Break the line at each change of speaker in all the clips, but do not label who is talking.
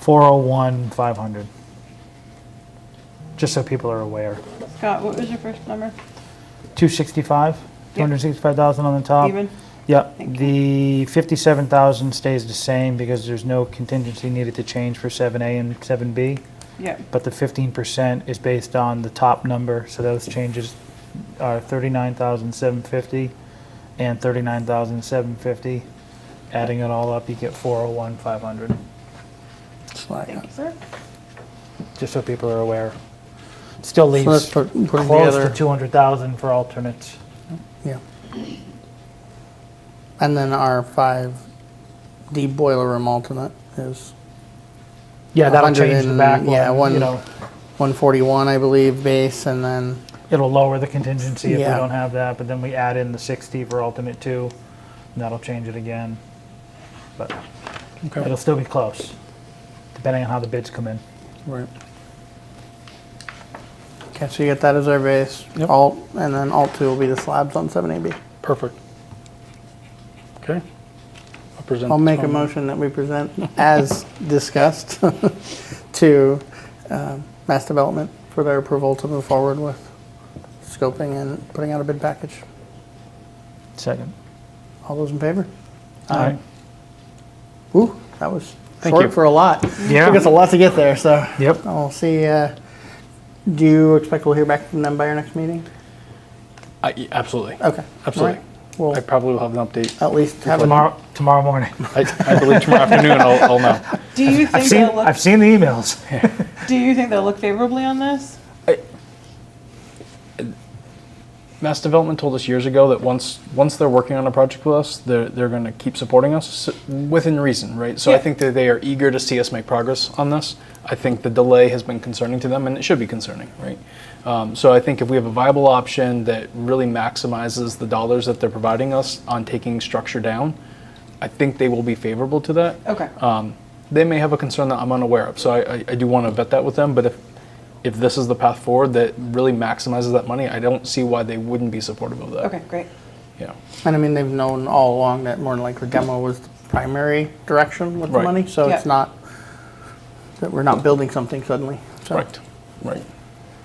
401, 500. Just so people are aware.
Scott, what was your first number?
265, 265,000 on the top.
Even?
Yep,
Thank you.
the 57,000 stays the same because there's no contingency needed to change for 7A and 7B.
Yep.
But the 15% is based on the top number, so those changes are 39,750 and 39,750. Adding it all up, you get 401, 500,
Thank you, sir.
just so people are aware. Still
So that's
leaves
put- putting
close to
together-
200,000 for alternates.
Yeah. And then our five D boiler room alternate is
Yeah, that'll
100
change the
and-
back
yeah,
one,
one-
you know,
one forty-one, I believe, base, and then,
it'll lower the contingency if we
Yeah.
don't have that, but then we add in the 60 for alternate two, and that'll change it again. But it'll still be close, depending on how the bids come in.
right. Okay, so you get that as our base,
Yep.
alt, and then alt two will be the slabs on seven AB.
Perfect. Okay. I'll present
I'll
this
make a
one.
motion that we present as discussed to um, Mass Development for their approval to move forward with scoping and putting out a bid package.
Second.
All those in favor?
All right.
Ooh, that was
Thank you.
short for a lot.
Yeah.
Took us a lot to get there, so.
Yep.
I'll see, uh, do you expect we'll hear back from them by our next meeting?
I- yeah, Absolutely.
Okay.
Absolutely.
Well,
I probably will have an update.
at least have a,
Tomorrow, tomorrow morning.
I I believe tomorrow afternoon I'll I'll know.
Do you
I've
think
seen,
they'll look,
I've seen the emails.
do you think they'll look favorably on this?
Mass Development told us years ago that once once they're working on a project with us, they're they're going to keep supporting us s- within reason, right? So I
Yeah.
think that they are eager to see us make progress on this. I think the delay has been concerning to them, and it should be concerning, right? Um, so I think if we have a viable option that really maximizes the dollars that they're providing us on taking structure down, I think they will be favorable to that.
Okay.
Um, they may have a concern that I'm unaware of, so I, I, I do want to vet that with them. But if if this is the path forward that really maximizes that money, I don't see why they wouldn't be supportive of that.
Okay, great.
Yeah.
and I mean, they've known all along that more than likely demo was the primary direction with the
Right.
money, so it's
Yeah.
not, that we're not building something suddenly, so.
Right. Right.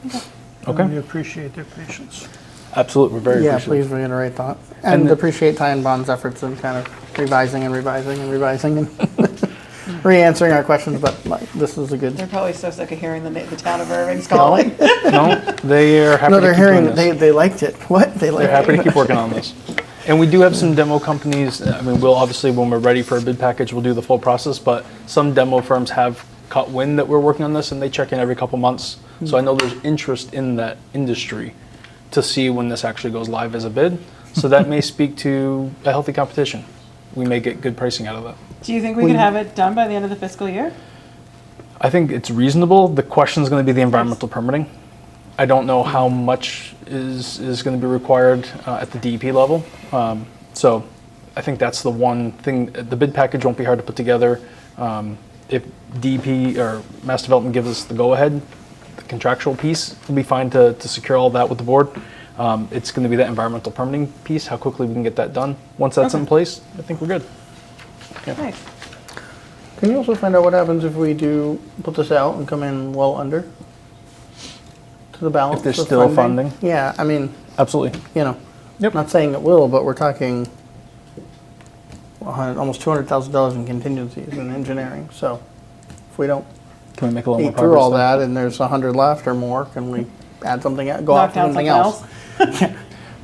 And
Okay.
We appreciate their patience.
Absolutely. We're very
Yeah, please
appreciative.
reiterate that.
And
And
the-
appreciate Ty and Bond's efforts in kind of revising and revising and revising and re-answering our questions, but like, this is a good.
They're probably so sick of hearing the, na- the town of Irving's calling.
no, they are happy
No,
to
they're
keep doing
hearing,
this.
they, they liked it. What? They
They're
liked
happy
it.
to keep working on this. And we do have some demo companies. I mean, we'll obviously, when we're ready for a bid package, we'll do the full process. But some demo firms have caught wind that we're working on this and they check in every couple months. So I know there's interest in that industry to see when this actually goes live as a bid. So that may speak to a healthy competition. We may get good pricing out of that.
Do you think we could have it done by the end of the fiscal year?
I think it's reasonable. The question is going to be the environmental permitting. I don't know how much is, is going to be required uh, at the DEP level. Um, so I think that's the one thing. The bid package won't be hard to put together. Um, if DEP or Mass Development gives us the go ahead, the contractual piece will be fine to, to secure all that with the board. Um, it's going to be that environmental permitting piece, how quickly we can get that done. Once that's in place, I think we're good.
Nice.
Can you also find out what happens if we do put this out and come in well under? To the balance
If there's
of
still funding?
Yeah, I mean,
Absolutely.
you know,
Yep.
not saying it will, but we're talking a hundred- almost two hundred thousand dollars in contingencies in engineering, so if we don't
Can we make a little more
eat
progress?
through all
then?
that and there's a hundred left or more, can we add something, out- go
Knock
off to
down
something
something
else?
else?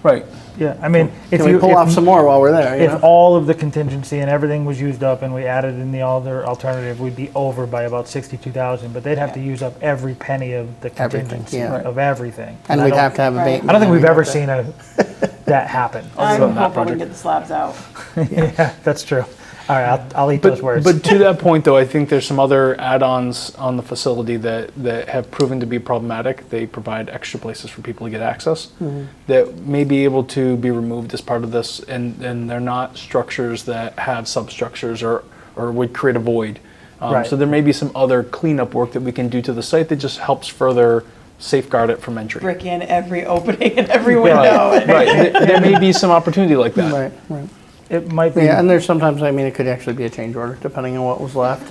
Right.
Yeah, I mean, if
Can we
you,
pull
if-
off some more while we're there, you
if
know?
all of the contingency and everything was used up and we added in the other alternative, we'd be over by about 62,000, but they'd have to use up every penny of the
Everything,
contingency
yeah.
of everything.
And
I
we'd
don't-
have to have
Right.
abatement.
I don't think
and
we've ever
everything.
seen a, that happen.
I'm
than that
hoping we can
project.
get the slabs out.
Yeah, that's true. All right, I'll, I'll eat those words.
But to that point, though, I think there's some other add-ons on the facility that, that have proven to be problematic. They provide extra places for people to get access
Mm-hmm.
that may be able to be removed as part of this, and, and they're not structures that have substructures or, or would create a void. Um,
Right.
So there may be some other cleanup work that we can do to the site that just helps further safeguard it from entry.
Brick in every opening and every window.
Right,
and-
right. There, there may be some opportunity like that.
Right, right.
it might be.
Yeah, and there's sometimes, I mean, it could actually be a change order, depending on what was left